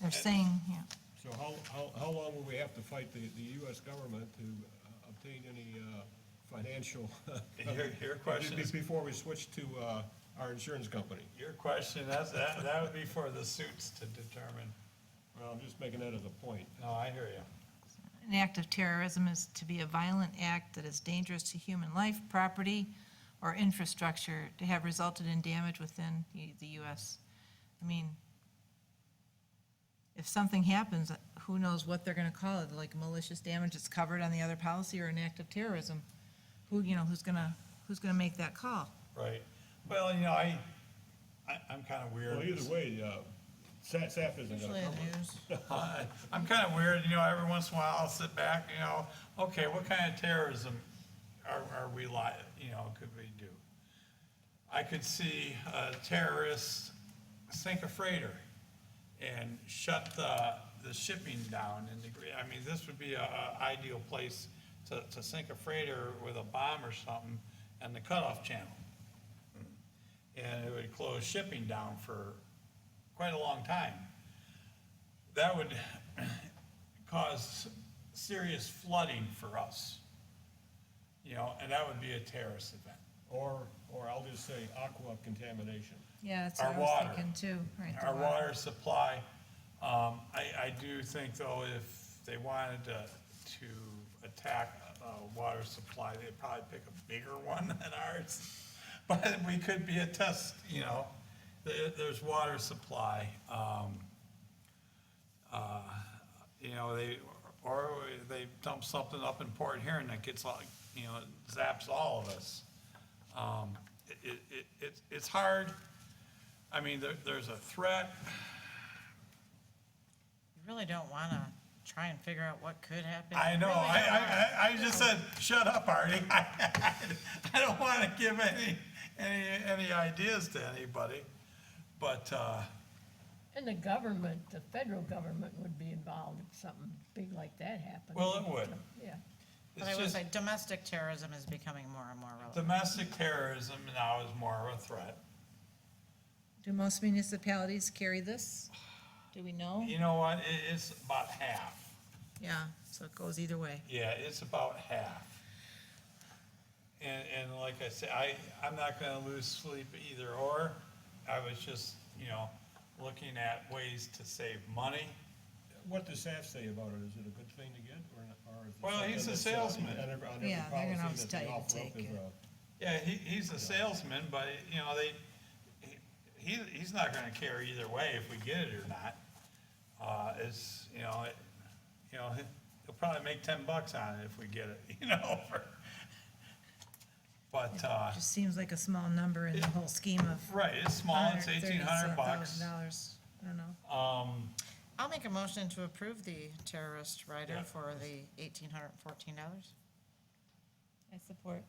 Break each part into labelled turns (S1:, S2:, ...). S1: They're saying, yeah.
S2: So how, how, how long will we have to fight the, the US government to uh, obtain any uh, financial?
S3: Your- your question is-
S2: Before we switch to uh, our insurance company?
S3: Your question, that's, that, that would be for the suits to determine.
S2: Well, I'm just making that as a point.
S3: No, I hear you.
S1: An act of terrorism is to be a violent act that is dangerous to human life, property, or infrastructure to have resulted in damage within the- the US. I mean, if something happens, who knows what they're gonna call it, like malicious damage that's covered on the other policy or an act of terrorism? Who, you know, who's gonna, who's gonna make that call?
S3: Right. Well, you know, I, I, I'm kind of weird.
S2: Well, either way, uh, Sa- SAF isn't
S1: Usually it
S2: gonna cover
S1: is.
S2: it.
S3: I- I'm kind of weird, you know, every once in a while I'll sit back, you know, okay, what kind of terrorism are, are we li, you know, could we do? I could see uh, terrorists sink a freighter and shut the, the shipping down in the, gre- I mean, this would be a, a ideal place to, to sink a freighter with a bomb or something and the cutoff channel. And it would close shipping down for quite a long time that would cause serious flooding for us. You know, and that would be a terrorist event.
S2: Or, or I'll just say aqua contamination.
S1: Yeah, that's
S3: Our
S1: what I was
S3: water.
S1: thinking too, right. the
S3: Our water supply, um, I, I do think though, if they wanted to, to attack a water supply, they'd probably pick a bigger one than ours. But we could be a test, you know, there, there's water supply, um, uh, you know, they, or they dump something up in Port Huron that gets all, you know, zaps all of us. Um, it, it, it, it's hard. I mean, there, there's a threat.
S4: You really don't want to try and figure out what could happen.
S3: I
S4: You
S3: know,
S4: really
S3: I,
S4: don't wanna.
S3: I, I, I just said, shut up, Artie. I, don't wanna give any, any, any ideas to anybody, but, uh,
S5: And the government, the federal government would be involved if something big like that happened.
S3: Well, uh, it would.
S5: Yeah.
S4: But
S3: it's
S4: I would
S3: just,
S4: say domestic terrorism is becoming more and more relevant.
S3: domestic terrorism now is more of a threat.
S1: Do most municipalities carry this? Do we know?
S3: You know what? It, it's about half.
S1: Yeah, so it goes either way.
S3: Yeah, it's about half. And, and like I said, I, I'm not gonna lose sleep either or. I was just, you know, looking at ways to save money.
S2: What does SAF say about it? Is it a good thing to get or not? or is it
S3: Well,
S2: something
S3: he's a
S2: that's, uh,
S3: salesman.
S2: on every- on every
S1: Yeah, they're gonna
S2: policy
S1: always
S2: that
S1: tell
S2: they
S1: you to
S2: offer up
S1: take
S2: is uh,
S1: it.
S2: a-
S3: Yeah, he, he's a salesman, but, you know, they, he, he's not gonna care either way if we get it or not. Uh, it's, you know, it, you know, he'll probably make ten bucks on it if we get it, you know, for. But, uh,
S1: Just seems like a small number in the whole scheme of.
S3: right, it's small, it's eighteen hundred bucks.
S1: Dollars, I don't know.
S3: Um,
S4: I'll make a motion to approve the terrorist rider
S3: Yeah.
S4: for the eighteen hundred and fourteen dollars.
S1: I support.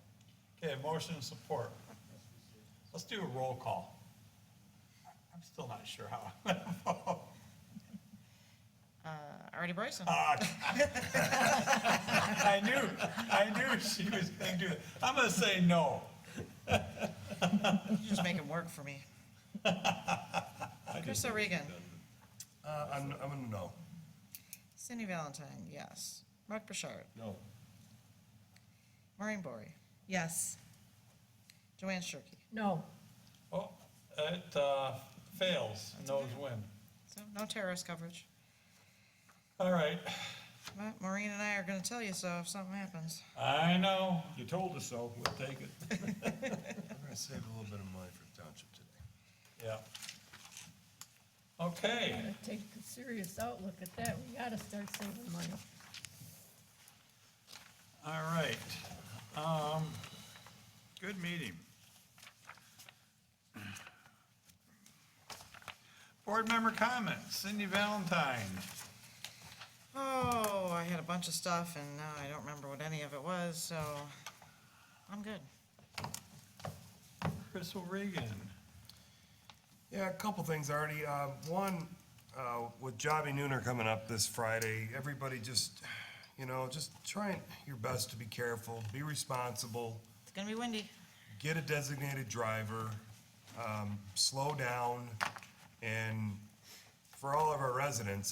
S3: Okay, motion and support. Let's do a roll call. I'm still not sure how. I'm gonna vote.
S4: Uh, Artie Bryson,
S6: Uh.
S3: Ah, I knew, I knew she was gonna do it. I'm gonna say no.
S4: you just make it work for me. Chris O'Regan,
S6: Uh, I'm, I'm a no.
S4: Cindy Valentine, yes. Mark Bouchard,
S2: No,
S4: Maureen Bory,
S1: Yes,
S4: Joanne Shirkey.
S5: No,
S3: Oh, it, uh, fails, no's win.
S4: So no terrorist coverage.
S3: All right,
S4: Ma- Maureen and I are gonna tell you so if something happens.
S3: I know,
S2: you told us so, we'll take it.
S6: I'm gonna save a little bit of money for township today.
S3: yeah. Okay,
S5: gotta take a serious outlook at that. We gotta start saving money.
S3: all right. Um, good meeting. Board member comments, Cindy Valentine.
S4: Oh, I had a bunch of stuff and now I don't remember what any of it was, so I'm good.
S3: Chris O'Regan.
S6: Yeah, a couple things, Artie. Uh, One, uh, with Jobby Nooner coming up this Friday, everybody just, you know, just try and- your best to be careful, be responsible,
S4: It's gonna be windy.
S6: get a designated driver, um, slow down, and for all of our residents